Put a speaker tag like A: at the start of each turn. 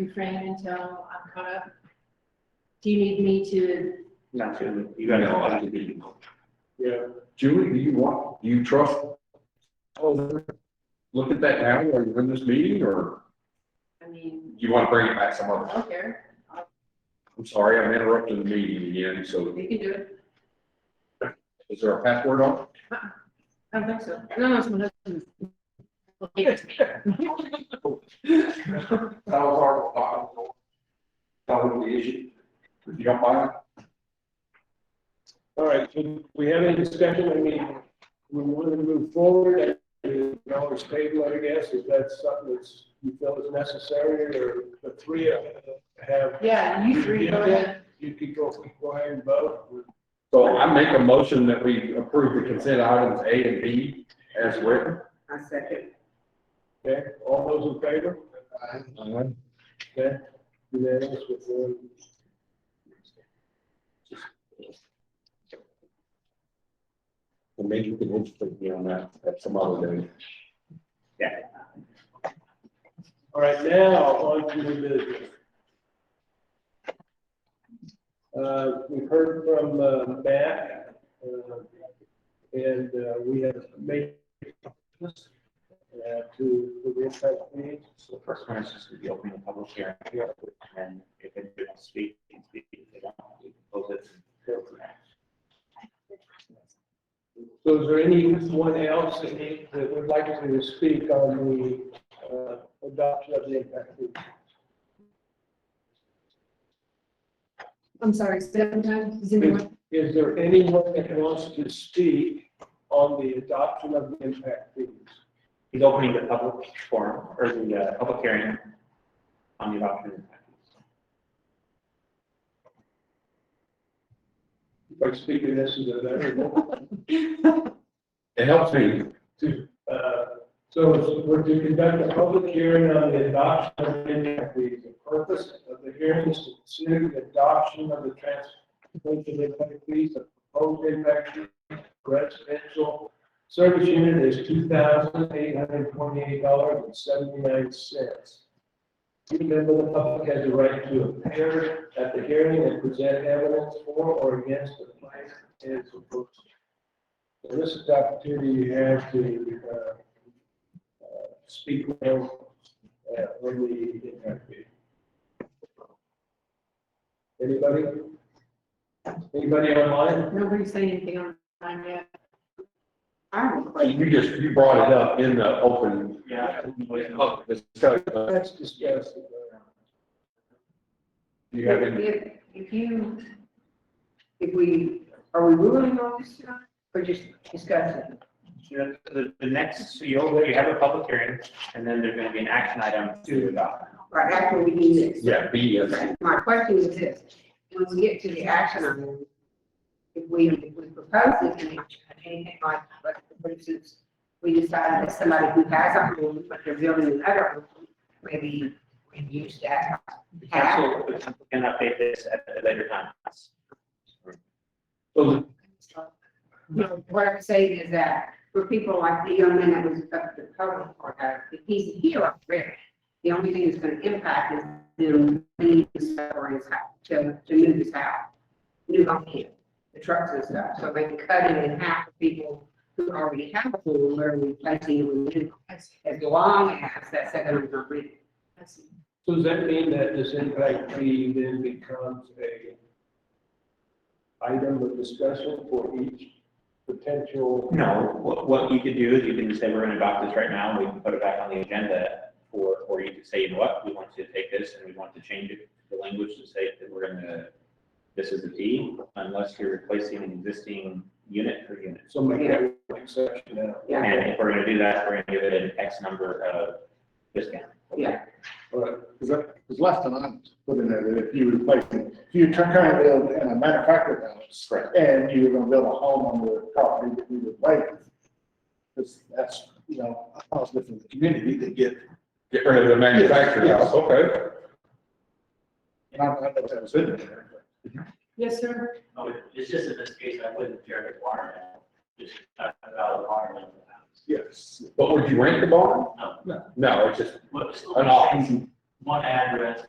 A: refrain until I'm caught up? Do you need me to,
B: Not really. You gotta go out to be.
C: Yeah. Julie, do you want, do you trust? Oh, Look at that now, or you in this meeting, or
A: I mean,
C: you want to bring it back some
A: I
C: other?
A: don't care,
C: I'm sorry, I'm interrupting the meeting again, so
A: you can do it.
C: is there a password on? it?
A: I don't think so. No, no, it's my husband. Well, he was me.
C: That was our, that was the issue. If you don't mind.
D: All right, so we have any discussion, I mean, we want to move forward, and you can always table, it, I guess, if that's something that's, you feel is necessary, or the three of you have,
A: Yeah, you three, go ahead.
D: you could go, go ahead and vote.
C: So I make a motion that we approve the consent items A and B as written.
E: I second.
D: Okay, all those in favor?
C: Uh-huh.
D: Okay, unanimous with one.
C: And maybe we can educate me on that at some other day.
D: All right, now, on to the business. Uh, we've heard from, uh, Matt, uh, and, uh, we have made uh, to, to the impact fee.
B: So the first one is just to be open to public hearing. And if they don't speak, they can speak. If they don't, we can close it.
D: So is there anyone else that need, that would like to speak on the, uh, adoption of the impact fee?
A: I'm sorry, seven times, is anyone?
D: Is there anyone that wants to speak on the adoption of the impact fees?
B: He's opening the public forum or the uh, public hearing on the adoption. of the package.
D: By speaking, this is a veteran.
C: It helps me.
D: to, uh, so we're to conduct a public hearing on the adoption of the impact fees. The purpose of the hearing is to consider the adoption of the transportation impact fees, the proposed impact fee for residential service unit is two thousand eight hundred twenty-eight dollars and seventy-nine cents. Each member of the public has the right to appear at the hearing and present evidence for or against the plan and proposal. So This is the opportunity you have to uh, uh, speak well uh, when we interview. Anybody? Anybody online?
A: Nobody's saying anything on time yet.
E: I have a question.
C: You just, you brought it up in the open.
B: Yeah.
C: Public discussion.
D: Let's discuss. it.
C: Do you have any?
E: If, if you, if we, are we ruling on this tonight or just discussing?
B: The, the- the next, so you'll, you have a public hearing and then there's gonna be an action item to adopt.
E: Right after we do this?
C: Yeah, B is.
E: My question is this, when we get to the action item, if we, if we propose it, and anything like, like, for instance, we decide that somebody who has a home, but they're building another home, maybe we use that.
B: The council can update this at a later time.
C: So
E: No, What I'm saying is that for people like the young man that was up to the public or that, if he's here already, the only thing that's gonna impact is them leaving stuff or his house, to, to move his house. Move on here, the trucks and stuff, so they can cut it in half for people who already have a home, where we placing it with new.
A: I see,
E: As long as that second one's not ready.
A: I see.
D: So does that mean that this impact fee then becomes a item of discussion for each potential?
B: No, what, what you could do is you can just say, we're gonna adopt this right now, and we can put it back on the agenda. Or, or you could say, you know what, we want you to take this and we want to change it, the language to say that we're gonna, this is a D, unless you're replacing an existing unit per unit.
D: So make that an exception now.
E: Yeah,
B: And if we're gonna do that, we're gonna give it an X number of discount.
E: yeah,
F: Because last time I was putting it, that if you replace it, if you're trying to build in a manufactured house.
B: Correct.
F: And you're gonna build a home on the property that we replace. Because that's, you know, a positive for the community to get,
C: get rid of the manufacturer.
F: Yes.
C: Okay.
F: and I don't know if that was in there.
A: Yes, sir?
G: Oh, it's just in this case, I wouldn't care to water that, just not about the water level.
F: Yes.
C: But would you rent the barn?
G: No.
C: No, it's just
G: What was the
C: an
G: last thing?
C: option.
B: one address